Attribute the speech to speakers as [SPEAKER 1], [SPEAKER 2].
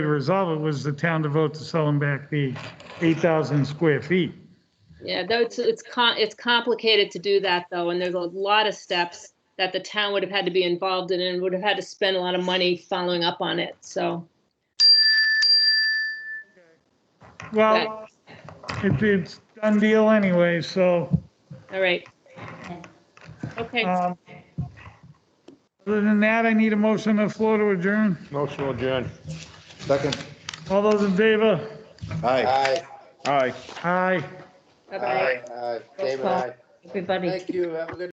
[SPEAKER 1] to resolve it was the town to vote to sell them back the 8,000 square feet.
[SPEAKER 2] Yeah, though it's, it's com, it's complicated to do that though, and there's a lot of steps that the town would have had to be involved in and would have had to spend a lot of money following up on it, so.
[SPEAKER 1] Well, it- it's done deal anyway, so.
[SPEAKER 2] All right. Okay,
[SPEAKER 1] um, Other than that, I need a motion on the floor to adjourn.
[SPEAKER 3] Motion adjourned.
[SPEAKER 4] Second.
[SPEAKER 1] All those in favor?
[SPEAKER 4] Aye.
[SPEAKER 3] Aye.
[SPEAKER 1] Aye.
[SPEAKER 2] bye-bye,
[SPEAKER 4] Aye. David, aye.
[SPEAKER 2] everybody.
[SPEAKER 4] Thank you. Have a good